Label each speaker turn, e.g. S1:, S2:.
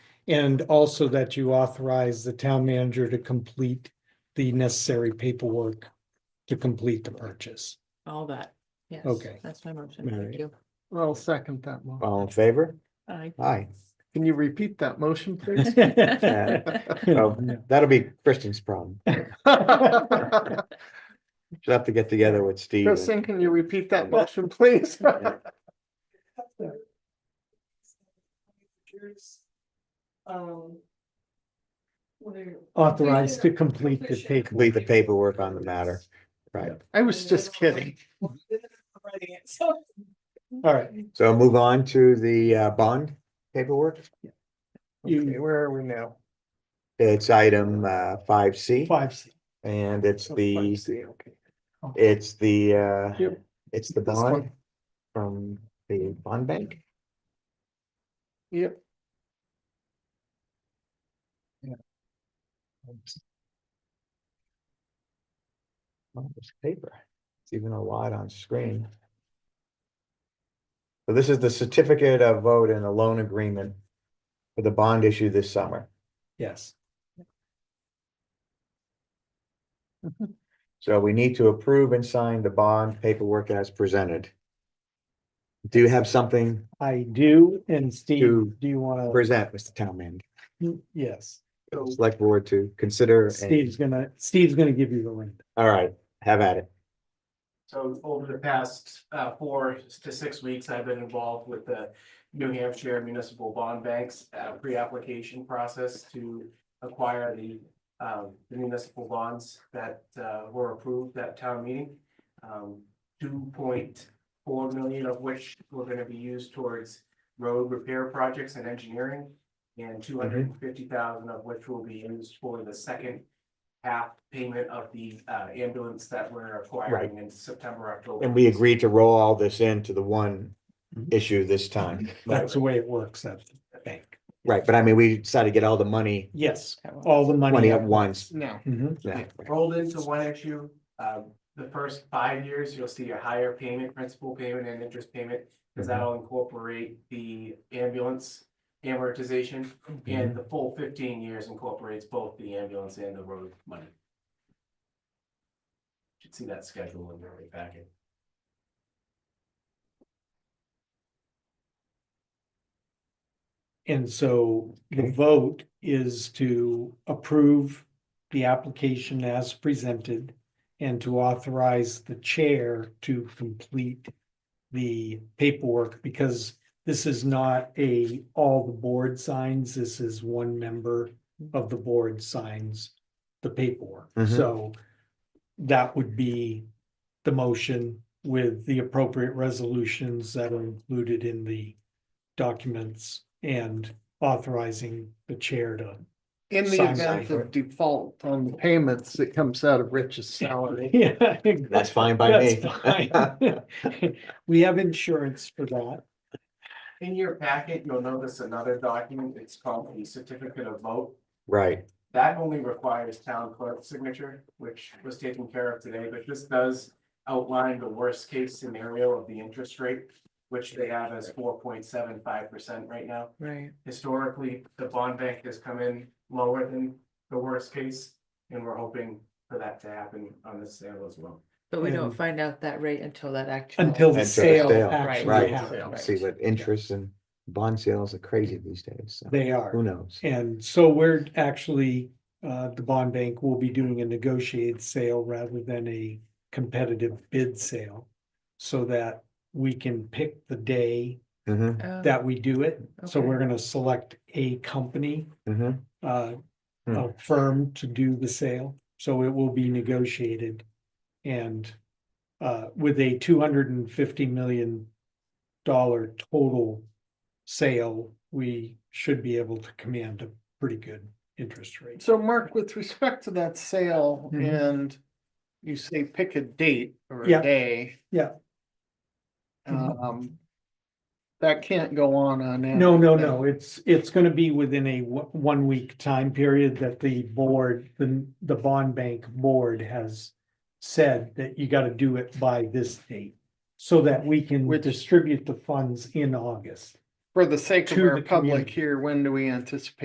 S1: And also that you authorize the town manager to complete the necessary paperwork to complete the purchase.
S2: all that. Yes.
S1: Okay.
S2: That's my motion.
S1: All
S2: Thank
S1: right.
S2: you.
S3: I'll second that one.
S4: All in favor?
S2: Aye.
S4: Aye.
S3: Can you repeat that motion, please?
S4: So that'll be Kristen's problem. She'll have to get together with Steve. and-
S3: Kristen, can you repeat that motion, please?
S5: Um. Where.
S1: Authorized to complete the
S5: Completion.
S4: Complete
S1: paperwork.
S4: the paperwork on the matter. Right.
S3: I was just kidding.
S5: Writing it, so-
S1: All right,
S4: So move on to the uh, bond paperwork.
S1: You-
S3: Okay, where are we now?
S4: It's item uh five C
S1: five, C.
S4: and it's
S3: Oh,
S4: the,
S3: 5C, okay.
S4: it's the uh,
S3: Yep.
S4: it's the
S3: This one.
S4: bond from the bond bank.
S3: Yep.
S4: Oh, it's paper. It's even a lot on screen. So this is the certificate of vote and a loan agreement for the bond issue this summer.
S1: yes.
S4: So we need to approve and sign the bond paperwork as presented. Do you have something
S1: I do, and
S4: To
S1: Steve, do you
S4: to
S1: want
S4: present, Mr. Town Manager?
S1: to, yes,
S4: Select board to consider. and-
S1: Steve's gonna, Steve's gonna give you the link.
S4: All right, have at it.
S6: So over the past uh four to six weeks, I've been involved with the New Hampshire Municipal Bond Bank's uh pre-application process to acquire the um the municipal bonds that uh were approved at town meeting. Um, two point four million of which were gonna be used towards road repair projects and engineering. And two hundred and fifty thousand of which will be used for the second half payment of the uh ambulance that we're acquiring in September, October.
S4: And we agreed to roll all this into the one issue this time.
S1: That's the way it works at the bank.
S4: Right, but I mean, we decided to get all the money,
S1: Yes, all the money.
S4: money at once.
S3: No.
S1: Mhm.
S4: Yeah.
S6: rolled into one issue. Um, the first five years, you'll see a higher payment, principal payment and interest payment, because that'll incorporate the ambulance amortization. And the full fifteen years incorporates both the ambulance and the road money. Should see that schedule in your packet.
S1: And so the
S4: Okay.
S1: vote is to approve the application as presented and to authorize the chair to complete the paperwork because this is not a, all the board signs, this is one member of the board signs the paperwork.
S4: Mhm.
S1: So that would be the motion with the appropriate resolutions that are included in the documents and authorizing the chair to.
S3: In the
S1: Sign
S3: event
S1: paper.
S3: of default on the payments, it comes out of Rich's salary.
S1: Yeah,
S4: That's fine by me.
S1: me. We have insurance for that.
S6: In your packet, you'll notice another document. It's called the certificate of vote.
S4: Right,
S6: That only requires town clerk signature, which was taken care of today, but this does outline the worst case scenario of the interest rate, which they have as four point seven five percent right now.
S2: Right.
S6: Historically, the bond bank has come in lower than the worst case, and we're hoping for that to happen on this sale as well.
S2: But we don't
S1: And-
S2: find out that rate until that actual.
S1: Until the
S4: Until the
S1: sale
S4: sale,
S1: actually
S4: right.
S1: happens.
S4: see what interest and bond sales are crazy these days, so
S1: They are.
S4: who knows?
S1: And so we're actually, uh, the bond bank will be doing a negotiated sale rather than a competitive bid sale. So that we can pick the day
S4: Mhm,
S2: Oh,
S1: that we do it. So
S2: okay.
S1: we're gonna select a company,
S4: mhm.
S1: uh,
S4: Hmm.
S1: a firm to do the sale. So it will be negotiated. And, uh, with a two hundred and fifty million dollar total sale, we should be able to command a pretty good interest rate.
S3: So Mark, with respect to that sale
S1: Mhm.
S3: and you say pick a date or
S1: Yeah.
S3: a day.
S1: Yeah. Mm-hmm.
S3: Um, that can't go on on. end.
S1: No, no, no, it's, it's gonna be within a one week time period that the board, the, the bond bank board has. Said that you gotta do it by this date, so that we can
S3: Which-
S1: distribute the funds in August.
S3: For the sake of
S1: To
S3: our
S1: the
S3: public
S1: community.
S3: here, when do we anticipate